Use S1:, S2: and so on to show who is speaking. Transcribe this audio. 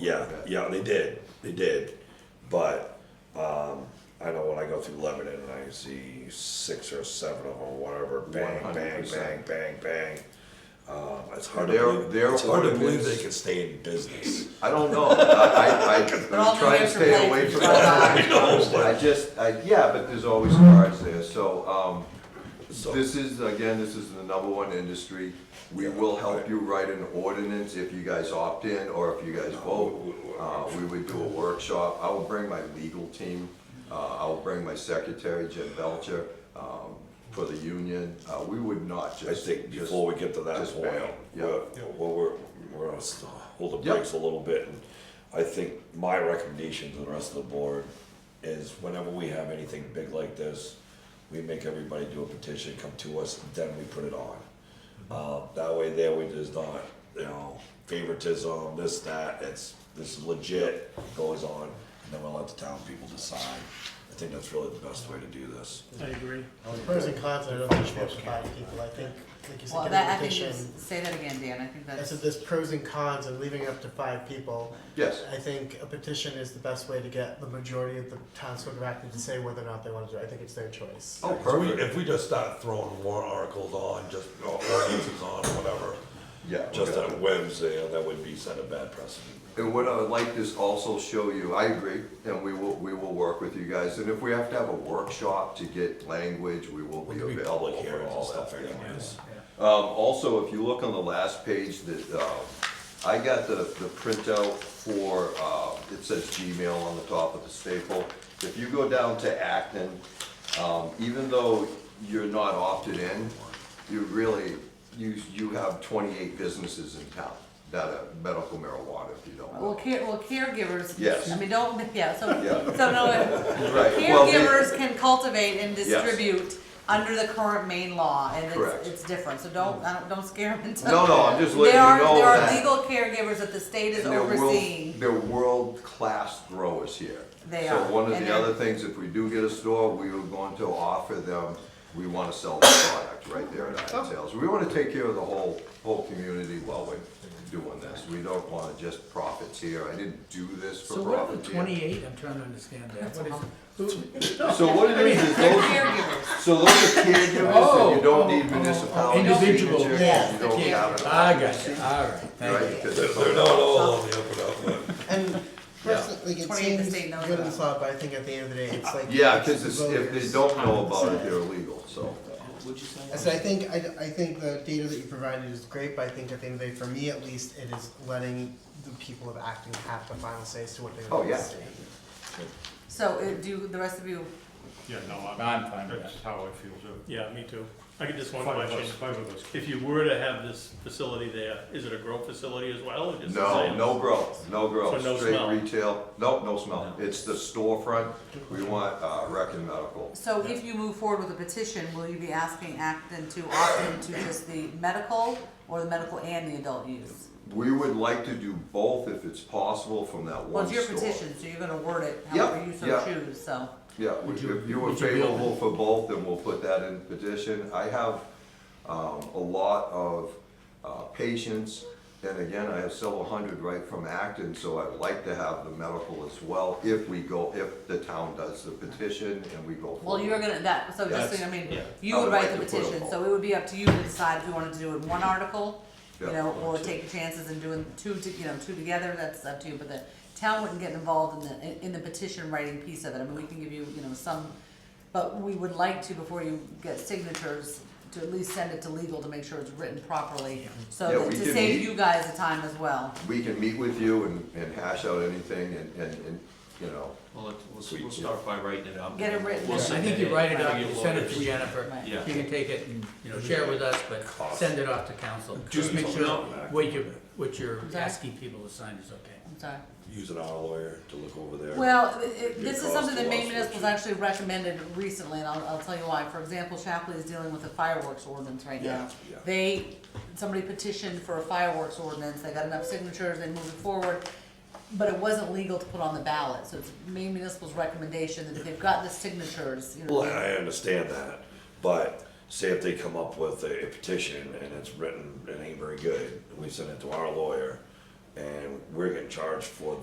S1: Yeah, yeah, they did, they did, but, um, I know when I go through Lebanon and I see six or seven of them, whatever, bang, bang,
S2: 100%.
S1: bang, bang, bang. Um, it's hard to
S2: Their-
S1: believe,
S2: their
S1: it's hard to believe
S2: ordinance-
S1: they can stay in business.
S2: I don't know. I, I,
S3: They're all
S2: I try to
S3: going
S2: stay
S3: for
S2: away
S3: planes.
S2: from
S1: I know,
S2: that.
S1: but-
S2: I just, I, yeah, but there's always cars there, so, um,
S1: So-
S2: this is, again, this is the number one industry. We will help you write an ordinance if you guys opt in or if you guys vote. Uh, we would do a workshop. I will bring my legal team. Uh, I will bring my secretary, Jim Belcher, um, for the union. Uh, we would not
S1: I
S2: just.
S1: think
S2: just-
S1: before we get to that
S2: just
S1: point,
S2: bail, yeah.
S1: we're, you know, well, we're, we're gonna s- uh, hold the
S2: Yeah.
S1: brakes a little bit, and I think my recommendation to the rest of the board is whenever we have anything big like this, we make everybody do a petition, come to us, then we put it on. Uh, that way there, we just not, you know, favoritism, this, that, it's, this is legit, goes on, and then we'll let the town people decide. I think that's really the best way to do this.
S4: I agree. Pros and cons, I don't think it's supposed to buy people, I think, like you said,
S3: Well,
S4: get a
S3: that, I think, you
S4: petition.
S3: s- say that again, Dan, I think
S4: I
S3: that's,
S4: said there's pros and cons and leaving it up to five people.
S2: Yes.
S4: I think a petition is the best way to get the majority of the townsfolk of Acton to say whether or not they want to do it, I think it's their choice.
S2: Oh,
S5: So we,
S2: perfect.
S5: if we just start throwing warrant articles on, just, or ordinances on, whatever,
S2: Yeah. we're
S1: Just
S2: gonna-
S1: on Wednesday, uh, that would be set a bad precedent.
S2: And what I would like to also show you, I agree, and we will, we will work with you guys, and if we have to have a workshop to get language, we will be
S1: It'll be
S2: available
S1: public
S2: for
S1: hearings and
S2: all
S1: stuff
S2: that.
S1: anyways.
S2: Um, also, if you look on the last page, that, um, I got the, the printout for, uh, it says Gmail on the top of the staple. If you go down to Acton, um, even though you're not opted in, you really, you, you have twenty-eight businesses in town that are medical marijuana, if you don't know.
S3: well, care, well, caregivers.
S2: Yes.
S3: I mean, don't, yeah, so,
S2: Yeah.
S3: so no, if-
S2: Right, well, they-
S3: caregivers can cultivate and distribute under the current Maine law, and
S2: Correct.
S3: it's, it's different, so don't, I don't, don't scare them into.
S2: No, no, I'm just
S3: There
S2: letting you
S3: are,
S2: know
S3: there are
S2: that-
S3: legal caregivers that the state is
S2: And they're world-
S3: overseeing,
S2: They're world-class growers here.
S3: They
S2: so
S3: are,
S2: one of
S3: and
S2: the
S3: they're-
S2: other things, if we do get a store, we are going to offer them, we want to sell the product right there at
S6: Oh.
S2: Iron Sales. We want to take care of the whole, whole community while we're doing this. We don't want to just profits here. I didn't do this for
S6: So what are the
S2: profits here.
S6: twenty-eight, I'm trying to understand that, what is,
S2: So what it is, is
S3: they're
S2: those,
S3: caregivers,
S2: so those are caregivers that you
S6: Oh,
S2: don't
S6: oh,
S2: need
S6: oh, oh.
S2: municipality
S6: Individual.
S2: signatures,
S4: Yes,
S2: you
S3: the
S2: don't have it.
S6: Ah, I got you, all right, thank you.
S2: Right, 'cause
S5: they're,
S2: it's
S5: they're not all on the up and up, but.
S4: And personally, it
S3: 28 to
S4: seems
S3: say no to
S4: good
S3: that.
S4: in slot, but I think at the end of the day, it's like.
S2: Yeah,
S4: it's the
S2: because if they
S4: voters.
S2: don't know about it, they're illegal, so.
S4: I said, I think, I, I think the data that you provided is great, but I think at the end of the day, for me at least, it is letting the people of Acton have the final say as to what they
S2: Oh,
S4: want to
S2: yeah.
S4: see.
S3: so, uh, do the rest of you,
S7: Yeah, no, I'm,
S6: I'm fine with that.
S7: that's how I feel too.
S8: Yeah, me too. I get just one
S7: Five of
S8: question.
S7: us, five of us.
S8: If you were to have this facility there, is it a grow facility as well, or just a
S2: No,
S8: sales?
S2: no grow, no grow,
S8: So no
S2: straight
S8: smell?
S2: retail, no, no smell, it's the storefront, we want, uh, rec and medical.
S3: so if you move forward with a petition, will you be asking Acton to opt into just the medical, or the medical and the adult use?
S2: We would like to do both if it's possible from that
S3: Well,
S2: one
S3: it's your
S2: store.
S3: petition, so you're gonna word it
S2: Yep,
S3: however you so
S2: yep.
S3: choose, so.
S2: Yeah, we-
S6: Would you-
S2: if you were
S6: would you be open?
S2: favorable for both, then we'll put that in petition. I have, um, a lot of, uh, patients, and again, I have several hundred right from Acton, so I'd like to have the medical as well, if we go, if the town does the petition and we go
S3: Well,
S2: forward.
S3: you're gonna, that, so just, so you know, I mean, you
S2: I
S3: would
S2: would
S3: write
S2: like
S3: the
S2: to put
S3: petition,
S2: them
S3: so it would be up to you to decide if you wanted to do it in one article, you
S2: Yeah,
S3: know,
S2: or
S3: or
S2: two.
S3: take chances and doing two, to- you know, two together, that's up to you, but the town wouldn't get involved in the, in- in the petition writing piece of it, I mean, we can give you, you know, some, but we would like to, before you get signatures, to at least send it to legal to make sure it's written properly,
S2: Yeah,
S3: so that-
S2: we
S3: to
S2: can
S3: save
S2: meet-
S3: you guys the time as well.
S2: we can meet with you and, and hash out anything and, and, and, you know,
S9: Well, let's- let's, we'll start by writing it up.
S3: Get it written
S9: We'll
S3: down.
S6: I
S9: send
S6: think you
S9: in.
S6: write it
S9: We'll
S6: up,
S9: get
S6: you send it
S9: lawyers.
S6: to Jennifer,
S3: Right.
S6: you
S9: Yeah.
S6: can take it and, you know, share with us, but send it off to council. Just make sure what you, what you're
S3: Sorry?
S6: asking people to sign is okay.
S3: I'm sorry.
S1: using our lawyer to look over there.
S3: Well, i- i- this is
S1: cost
S3: something
S1: to
S3: that Maine
S1: us,
S3: Municipal's actually recommended recently, and I'll, I'll tell you why. For example, Shapley is dealing with a fireworks ordinance right now.
S1: Yeah, yeah.
S3: They, somebody petitioned for a fireworks ordinance, they got enough signatures, they moved it forward, but it wasn't legal to put on the ballot, so it's Maine Municipal's recommendation that if they've got the signatures, you know.
S1: Well, I understand that, but say if they come up with a petition and it's written and ain't very good, and we send it to our lawyer, and we're getting charged for